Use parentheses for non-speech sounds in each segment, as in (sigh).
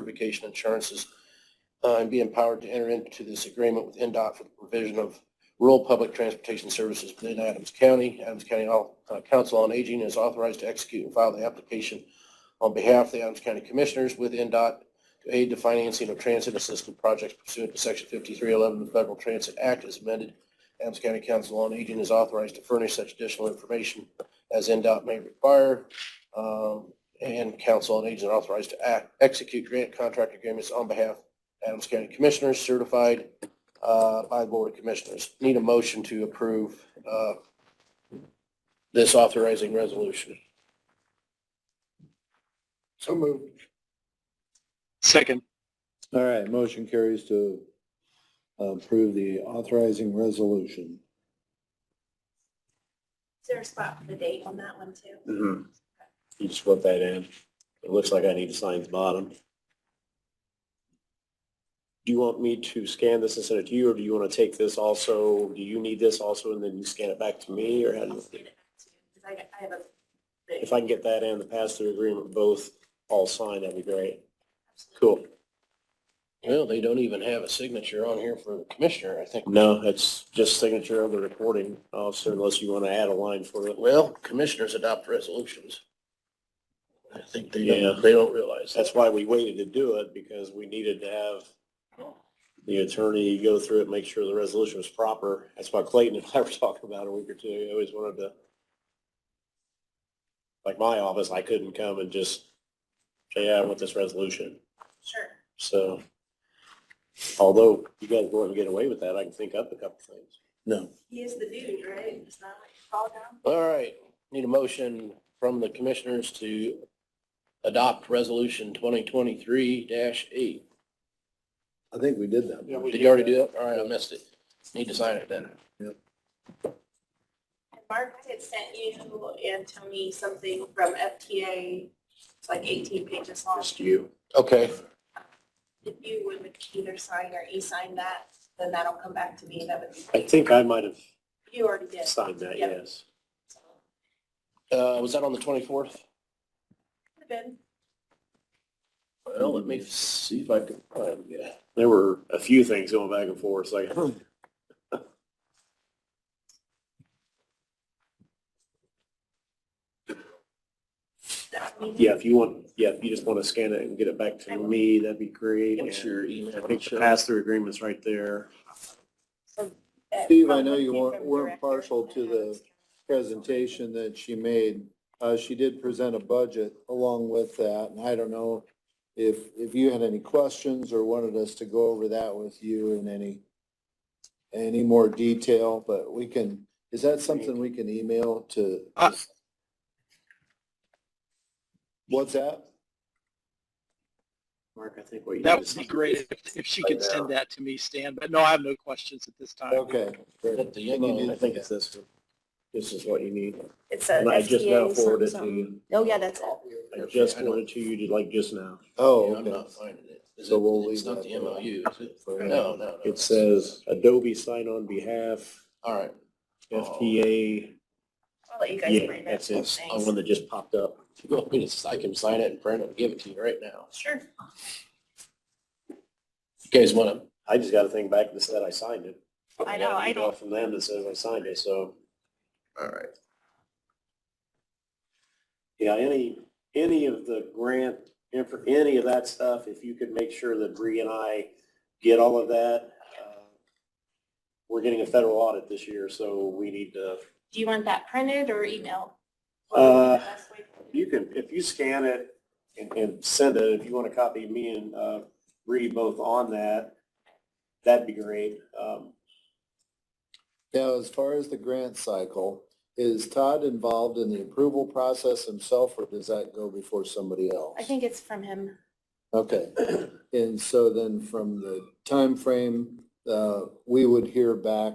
certification insurances uh, and be empowered to enter into this agreement with NDOT for the provision of rural public transportation services within Adams County. Adams County Al- uh, Council on Aging is authorized to execute and file the application on behalf of the Adams County Commissioners with NDOT to aid the financing of transit assistance projects pursuant to Section 5311 of the Federal Transit Act as amended. Adams County Council on Aging is authorized to furnish such additional information as NDOT may require. Um, and council and agent authorized to act, execute grant contract agreements on behalf of Adams County Commissioners certified uh, by the Board of Commissioners. Need a motion to approve uh, this authorizing resolution. So moved. Second. All right, motion carries to approve the authorizing resolution. Is there a spot for the date on that one too? You just put that in. It looks like I need to sign the bottom. Do you want me to scan this and send it to you, or do you want to take this also? Do you need this also, and then you scan it back to me, or how do I'll you? scan it back to you, 'cause I, I have a, If I can get that and the pass-through agreement, both all signed, that'd be great. absolutely. Cool. Well, they don't even have a signature on here for the commissioner, I think. No, it's just signature of the recording officer, unless you want to add a line for it. Well, commissioners adopt resolutions. I think they Yeah. don't, they don't realize that. That's why we waited to do it, because we needed to have oh, the attorney go through it, make sure the resolution was proper. That's why Clayton and I were talking about it a week or two. I always wanted to, like my office, I couldn't come and just say, yeah, I want this resolution. Sure. So although you guys wouldn't get away with that, I can think up a couple things. No. He is the dude, right? It's not like fall down. All right, need a motion from the commissioners to adopt resolution twenty twenty-three eight. I think we did that. Did you already do that? All right, I missed it. Need to sign it then. And Mark had sent you and Tony something from FTA, it's like eighteen pages long. you. Okay, If you would either sign or e-sign that, then that'll come back to me, that would be I great. think I might have You already did. signed that, Yep. yes. so. uh, was that on the twenty-fourth? Could've been. Well, let me see if I can find it. There were a few things going back and forth, like, (clears throat) hmm. That meeting. Yeah, if you want, yeah, if you just want to scan it and get it back to me, that'd be great. What's And your I email? think the pass-through agreement's right there. Uh, Steve, I know you from weren't- weren't director partial to and the- Adams County. Presentation that she made, uh, she did present a budget along with that, and I don't know if, if you had any questions or wanted us to go over that with you in any, any more detail, but we can, is that something we can email to? Uh. What's that? Mark, I think what you. That did is- would be great if, if she Right could send that to me, Stan, but no, I have no questions at this time. Okay. great. At the Can you do end, I think it's this one. This is what you need. It's a And I just now FTA forwarded something, it something. to you. Oh, yeah, that's it. I just forwarded to you, like just now. Oh, I'm okay. not finding it. Is So we'll it, it's leave not that the there. MOU, is it? No, no, no. It says Adobe sign on behalf, All right, Oh. FTA. I'll let you guys Yeah, bring that. that's it. The Thanks. one that just popped up. you want me to, I can sign it and print it and give it to you right now. Sure. You guys want to, I just got a thing back that said I signed it. I know, got an I email don't- From them that says I signed it, so. all right. Yeah, any, any of the grant, inf- any of that stuff, if you could make sure that Bree and I get all of that. uh, We're getting a federal audit this year, so we need to, Do you want that printed or emailed? Uh, Best way to do it. you can, if you scan it and, and send it, if you want to copy me and uh, Bree both on that, that'd be great. Um, Now, as far as the grant cycle, is Todd involved in the approval process himself, or does that go before somebody else? I think it's from him. Okay, and so then from the timeframe, uh, we would hear back,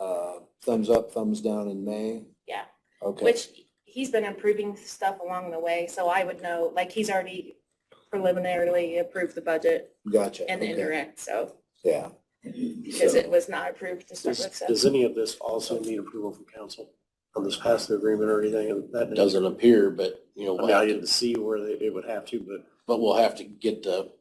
uh, thumbs up, thumbs down in May? Yeah. Okay, Which he's been approving stuff along the way, so I would know, like, he's already preliminarily approved the budget gotcha. and the okay, indirect, so, Yeah, because it was not approved to start Does, with, so. does any of this also need approval from council on this pass-through agreement or anything of that? nature? Doesn't appear, but, you know, I we'll mean, I have to- didn't see where they- it would have to, but but we'll have to get the